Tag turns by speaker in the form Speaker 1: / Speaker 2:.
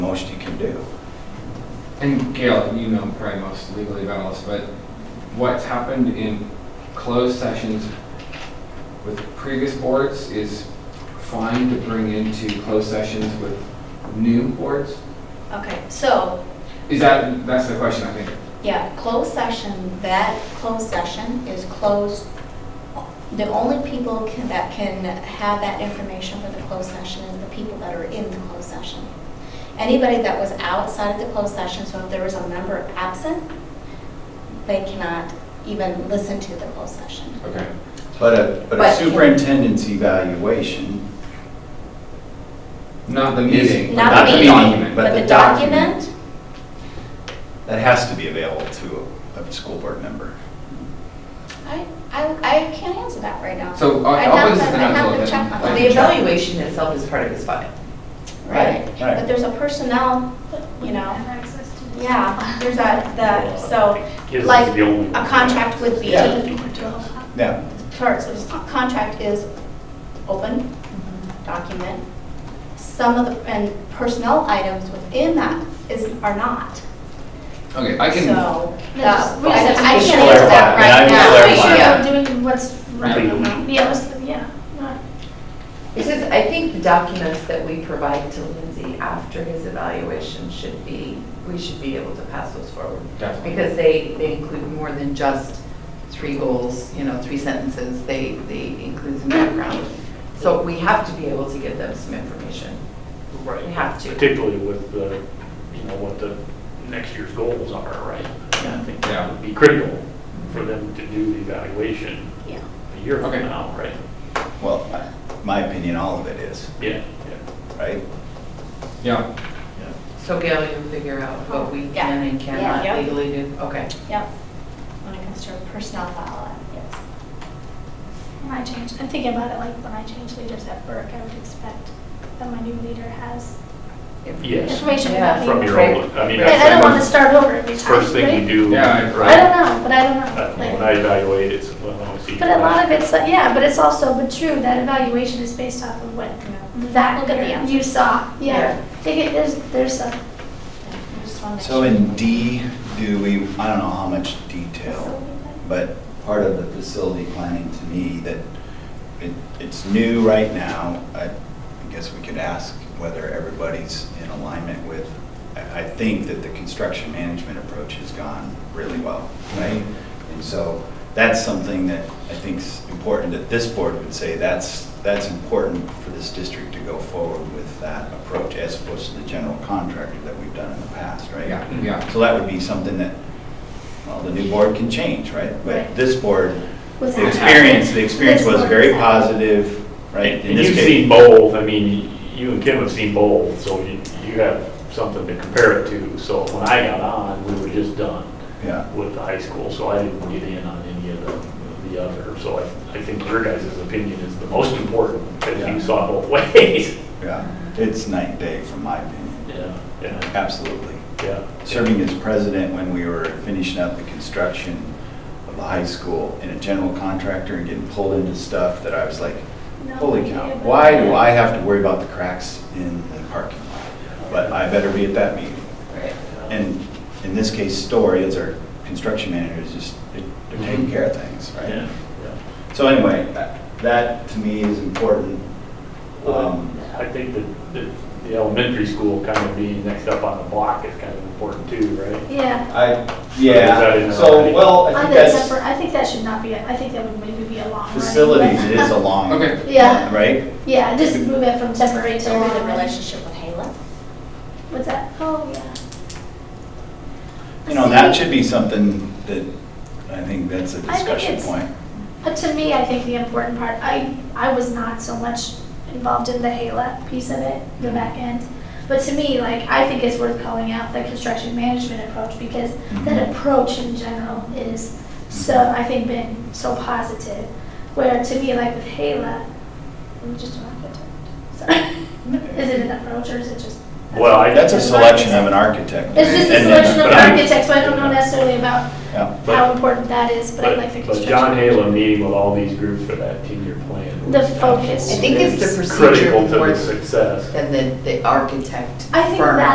Speaker 1: do.
Speaker 2: And Gail, you know probably most legally about all this, but what's happened in closed sessions with previous boards is fine to bring into closed sessions with new boards?
Speaker 3: Okay, so,
Speaker 2: Is that, that's the question, I think.
Speaker 3: yeah, closed session, that closed session is closed. The only people can- that can have that information for the closed session is the people that are in the closed session. Anybody that was outside of the closed session, so if there was a member absent, they cannot even listen to the closed session.
Speaker 2: Okay.
Speaker 1: But a, but a
Speaker 3: But-
Speaker 1: superintendent's evaluation,
Speaker 2: Not the
Speaker 1: Yes.
Speaker 2: meeting. but
Speaker 3: Not the
Speaker 2: the
Speaker 3: meeting,
Speaker 2: document.
Speaker 1: but
Speaker 3: But
Speaker 1: the
Speaker 3: the document,
Speaker 1: that has to be available to a, a school board member.
Speaker 3: I, I, I can't answer that right now.
Speaker 2: So, uh,
Speaker 3: I'd
Speaker 2: I'll
Speaker 3: have
Speaker 2: put this
Speaker 3: to-
Speaker 2: in
Speaker 3: I'd have
Speaker 2: envelope
Speaker 3: to
Speaker 2: then.
Speaker 3: check
Speaker 2: Like-
Speaker 3: on that.
Speaker 4: The evaluation itself is part of his file.
Speaker 3: Right,
Speaker 1: Right.
Speaker 3: but there's a personnel, you know,
Speaker 5: Have access to it.
Speaker 3: yeah, there's that, that, so,
Speaker 6: Kids
Speaker 3: like,
Speaker 6: is the only
Speaker 3: a
Speaker 6: one.
Speaker 3: contract would be,
Speaker 1: Yeah.
Speaker 5: Well,
Speaker 1: Yeah,
Speaker 3: first, a contract is open document. Some of the, and personnel items within that is, are not,
Speaker 2: Okay, I can.
Speaker 3: so.
Speaker 5: No,
Speaker 3: that-
Speaker 5: just- we
Speaker 3: I
Speaker 5: just have to
Speaker 3: I
Speaker 1: just
Speaker 3: can't answer that
Speaker 1: clarify,
Speaker 3: right
Speaker 1: and I will
Speaker 3: now.
Speaker 5: Make sure
Speaker 4: Yeah.
Speaker 5: we're doing what's right.
Speaker 6: Right.
Speaker 5: Yeah, what's the- yeah, not-
Speaker 4: Because I think the documents that we provide to Lindsay after his evaluation should be, we should be able to pass those forward.
Speaker 2: Definitely.
Speaker 4: Because they, they include more than just three goals, you know, three sentences, they, they include some background. So we have to be able to give them some information.
Speaker 6: Right.
Speaker 4: We have to.
Speaker 6: Particularly with the, you know, what the next year's goals are, right? And I think
Speaker 2: Yeah.
Speaker 6: that would be critical for them to do the evaluation
Speaker 3: Yeah.
Speaker 6: a year from
Speaker 2: Okay.
Speaker 6: now, right?
Speaker 1: well, I- my opinion, all of it is,
Speaker 6: Yeah,
Speaker 1: right?
Speaker 2: Yeah,
Speaker 4: So Gail, you figure out what we
Speaker 3: Yeah.
Speaker 4: can and
Speaker 3: Yeah.
Speaker 4: cannot legally do, okay.
Speaker 3: Yep, when it comes to personnel file, uh, yes.
Speaker 5: When I change, I'm thinking about it like when I change leaders at work, I would expect that my new leader has
Speaker 6: yeah, yes.
Speaker 5: information about
Speaker 4: Yeah.
Speaker 5: me.
Speaker 6: From your old, I mean,
Speaker 5: And I don't want to
Speaker 6: that's
Speaker 5: start over every
Speaker 6: the
Speaker 5: time.
Speaker 6: first thing
Speaker 5: right?
Speaker 6: you do.
Speaker 2: Yeah, I-
Speaker 5: I
Speaker 6: right?
Speaker 5: don't know, but I don't
Speaker 6: Uh,
Speaker 5: know.
Speaker 6: When
Speaker 5: like-
Speaker 6: I evaluate, it's, well, I see.
Speaker 5: But a lot of it's, like- yeah, but it's also, but true, that evaluation is based off of what that
Speaker 3: Look at the
Speaker 5: year
Speaker 3: answers.
Speaker 5: you saw,
Speaker 4: Yeah.
Speaker 5: yeah. They get- There's, there's a,
Speaker 3: I just wanna make
Speaker 1: So
Speaker 3: sure.
Speaker 1: in D, do we, I don't know how much detail, but part of the facility planning to me that it, it's new right now. I I guess we could ask whether everybody's in alignment with, I, I think that the construction management approach has gone really well, right? And so that's something that I think's important that this board would say, that's, that's important for this district to go forward with that approach as opposed to the general contractor that we've done in the past, right?
Speaker 2: yeah, yeah.
Speaker 1: So that would be something that, well, the new board can change, right? But
Speaker 5: Right.
Speaker 1: this board,
Speaker 5: was
Speaker 1: the
Speaker 5: that-
Speaker 1: experience, the experience
Speaker 5: This
Speaker 1: was
Speaker 5: board
Speaker 1: very
Speaker 5: was that.
Speaker 1: positive, right? In
Speaker 6: And
Speaker 1: this
Speaker 6: you've
Speaker 1: case-
Speaker 6: seen both, I mean, you and Kim have seen both, so you, you have something to compare it to. So when I got on, we were just done.
Speaker 1: Yeah,
Speaker 6: with the high school, so I didn't get in on any of the, the other. So I, I think your guys' opinion is the most important, because
Speaker 1: Yeah.
Speaker 6: you saw both ways.
Speaker 1: yeah, it's night and day from my opinion,
Speaker 6: Yeah, yeah,
Speaker 1: absolutely.
Speaker 6: yeah.
Speaker 1: Serving as president when we were finishing up the construction of the high school and a general contractor and getting pulled into stuff that I was like,
Speaker 5: No
Speaker 1: holy
Speaker 5: idea
Speaker 1: cow,
Speaker 5: about
Speaker 1: why
Speaker 5: that.
Speaker 1: do I have to worry about the cracks in the parking lot? But I better be at that meeting.
Speaker 4: Right.
Speaker 1: And in this case, Story, as our construction manager, is just, they're they're taking care of things,
Speaker 6: Yeah,
Speaker 1: right?
Speaker 6: yeah.
Speaker 1: So anyway, that- that to me is important.
Speaker 6: Well,
Speaker 1: Um,
Speaker 6: I think that, that the elementary school kind of being next up on the block is kind of important too, right?
Speaker 5: Yeah.
Speaker 1: I,
Speaker 6: that in
Speaker 1: yeah,
Speaker 6: there
Speaker 1: so,
Speaker 6: already?
Speaker 1: well, I
Speaker 5: I
Speaker 1: think
Speaker 5: think that,
Speaker 1: that's
Speaker 5: for- I think that should not be, a- I think that would maybe be a long run.
Speaker 1: facilities, it is a long,
Speaker 2: Okay,
Speaker 5: Yeah,
Speaker 1: right?
Speaker 5: yeah, just move it from temporary to
Speaker 3: So
Speaker 5: long.
Speaker 3: the relationship with Hala.
Speaker 5: What's that? Oh, yeah.
Speaker 1: You know, that should be something that, I think that's a
Speaker 5: think
Speaker 1: discussion
Speaker 5: it's-
Speaker 1: point.
Speaker 5: But to me, I think the important part, I, I was not so much involved in the HALA piece of it, the back end. But to me, like, I think it's worth calling out the construction management approach because that approach in general is so, I think, been so positive. Where to me, like with HALA, I'm just don't get it. Sorry. Is it an approach or is it just?
Speaker 6: Well, I-
Speaker 1: That's a selection of an architect.
Speaker 5: It's just a
Speaker 1: And-
Speaker 5: selection of
Speaker 6: but I-
Speaker 5: architects, but I don't know necessarily about
Speaker 1: Yeah,
Speaker 5: how important that is, but I
Speaker 6: But-
Speaker 5: like the
Speaker 6: But
Speaker 5: construction.
Speaker 6: John Halen meeting with all these groups for that ten-year plan. was
Speaker 5: The focus.
Speaker 4: I think it's the procedure
Speaker 6: Critical to
Speaker 4: more
Speaker 6: the success.
Speaker 4: than the, the architect
Speaker 5: I think
Speaker 4: firm.
Speaker 5: that